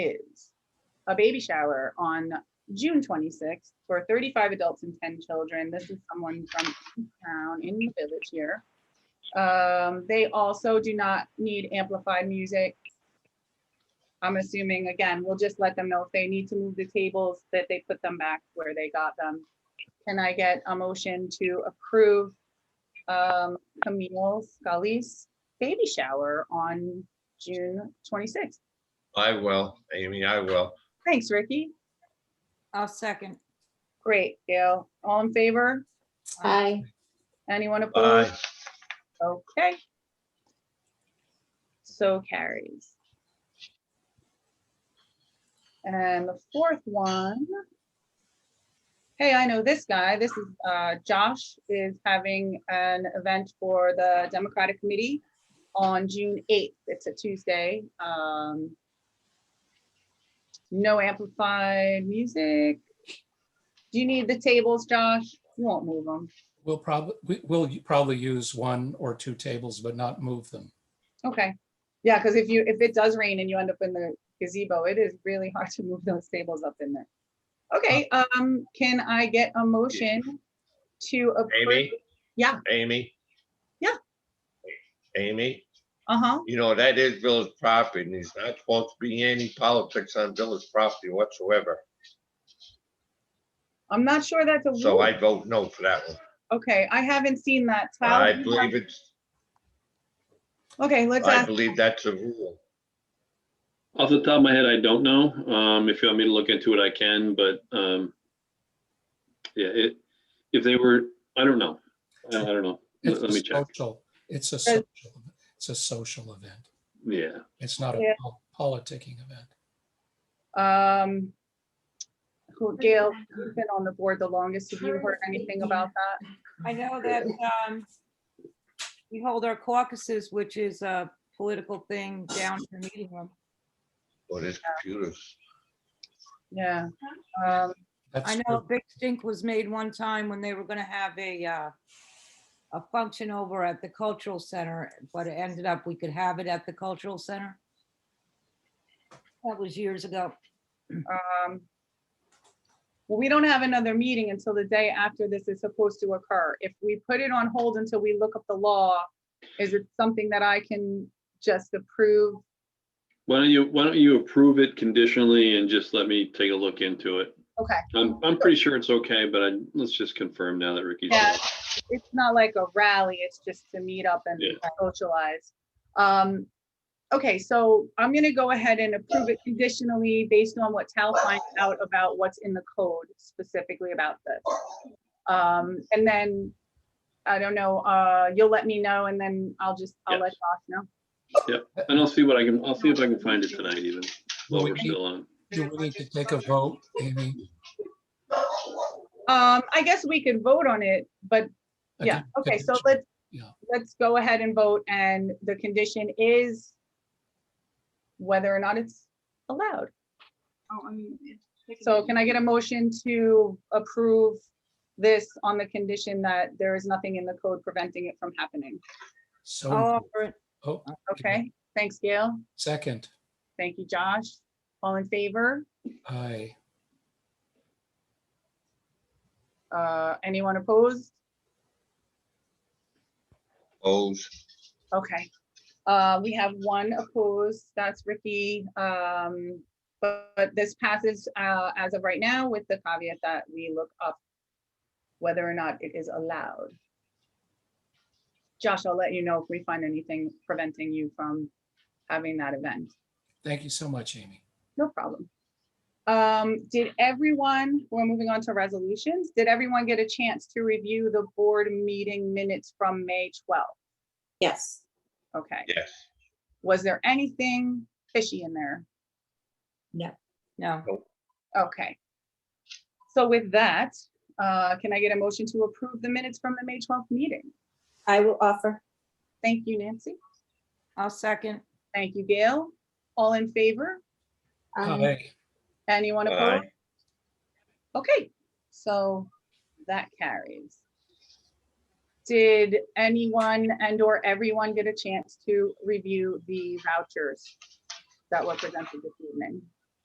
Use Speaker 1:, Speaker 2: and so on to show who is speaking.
Speaker 1: is a baby shower on June 26th for 35 adults and 10 children. This is someone from town in the village here. Um, they also do not need amplified music. I'm assuming, again, we'll just let them know if they need to move the tables, that they put them back where they got them. Can I get a motion to approve um, Camille Scully's baby shower on June 26th?
Speaker 2: I will, Amy, I will.
Speaker 1: Thanks, Ricky.
Speaker 3: I'll second.
Speaker 1: Great, Gail. All in favor?
Speaker 4: Aye.
Speaker 1: Anyone
Speaker 2: Aye.
Speaker 1: opposed? Okay. So carries. And the fourth one. Hey, I know this guy. This is uh, Josh is having an event for the Democratic Committee on June 8th. It's a Tuesday. Um, No amplified music. Do you need the tables, Josh? You won't move them.
Speaker 5: We'll probably, we'll probably use one or two tables, but not move them.
Speaker 1: Okay, yeah, because if you, if it does rain and you end up in the gazebo, it is really hard to move those tables up in there. Okay,
Speaker 2: Oh.
Speaker 1: um, can I get a motion to approve?
Speaker 2: Amy?
Speaker 1: Yeah.
Speaker 2: Amy?
Speaker 1: Yeah.
Speaker 2: Amy,
Speaker 1: Uh-huh,
Speaker 2: you know, that is village property, and there's not supposed to be any politics on village property whatsoever.
Speaker 1: I'm not sure that's a
Speaker 2: So I
Speaker 1: rule.
Speaker 2: vote no for that one.
Speaker 1: Okay, I haven't seen that. Tal,
Speaker 2: I
Speaker 1: you have-
Speaker 2: believe it's,
Speaker 1: Okay, let's
Speaker 2: I
Speaker 1: ask,
Speaker 2: believe that's a rule.
Speaker 6: Off the top of my head, I don't know. Um, if you want me to look into it, I can, but, um, yeah, it, if they were, I don't know. I I don't know.
Speaker 5: It's
Speaker 6: Let let me
Speaker 5: a
Speaker 6: check.
Speaker 5: social, it's a social, it's a social event.
Speaker 6: Yeah,
Speaker 5: It's not a
Speaker 1: Yeah.
Speaker 5: pol- politicking event.
Speaker 1: um, who, Gail, you've been on the board the longest. Have you heard anything about that?
Speaker 3: I know that um, we hold our caucuses, which is a political thing down in the meeting room.
Speaker 2: But it's computers.
Speaker 1: Yeah, um,
Speaker 5: That's
Speaker 3: I know a
Speaker 5: true.
Speaker 3: big stink was made one time when they were gonna have a uh, a function over at the cultural center, but it ended up we could have it at the cultural center. That was years ago.
Speaker 1: um, well, we don't have another meeting until the day after this is supposed to occur. If we put it on hold until we look up the law, is it something that I can just approve?
Speaker 6: why don't you, why don't you approve it conditionally and just let me take a look into it?
Speaker 1: Okay,
Speaker 6: I'm, I'm pretty sure it's okay, but I, let's just confirm now that Ricky's.
Speaker 1: Yeah. it's not like a rally, it's just to meet up and
Speaker 6: Yeah.
Speaker 1: socialize. Um, okay, so I'm gonna go ahead and approve it conditionally based on what Tal finds out about what's in the code specifically about this. Um, and then, I don't know, uh, you'll let me know and then I'll just, I'll let Josh know.
Speaker 6: And I'll see what I can, I'll see if I can find it tonight even,
Speaker 5: Well,
Speaker 6: while
Speaker 5: we
Speaker 6: we're
Speaker 5: need-
Speaker 6: still on.
Speaker 5: Do we need to take a vote, Amy?
Speaker 1: Um, I guess we could vote on it, but
Speaker 5: I
Speaker 1: yeah,
Speaker 5: think-
Speaker 1: okay, so let's,
Speaker 5: Yeah.
Speaker 1: let's go ahead and vote and the condition is whether or not it's allowed. So can I get a motion to approve this on the condition that there is nothing in the code preventing it from happening?
Speaker 5: So,
Speaker 1: um,
Speaker 3: I'll
Speaker 5: moved.
Speaker 3: offer it.
Speaker 5: oh,
Speaker 1: Okay, thanks, Gail.
Speaker 5: second,
Speaker 1: Thank you, Josh. All in favor?
Speaker 5: aye,
Speaker 1: Uh, anyone opposed?
Speaker 2: O's,
Speaker 1: Okay, uh, we have one opposed, that's Ricky. Um, but, but this passes, uh, as of right now with the caveat that we look up whether or not it is allowed. Josh, I'll let you know if we find anything preventing you from having that event.
Speaker 5: thank you so much, Amy.
Speaker 1: No problem. Um, did everyone, we're moving on to resolutions. Did everyone get a chance to review the board meeting minutes from May 12th?
Speaker 4: Yes.
Speaker 1: Okay.
Speaker 2: yes.
Speaker 1: Was there anything fishy in there?
Speaker 3: No,
Speaker 1: Okay. So with that, uh, can I get a motion to approve the minutes from the May 12th meeting?
Speaker 4: I will offer.
Speaker 1: Thank you, Nancy.
Speaker 3: I'll second.
Speaker 1: Thank you, Gail. All in favor? Um,
Speaker 4: Aye.
Speaker 5: Aye,
Speaker 1: Anyone opposed?
Speaker 2: Aye.
Speaker 1: Okay, so that carries. Did anyone and or everyone get a chance to review the vouchers that were presented this evening?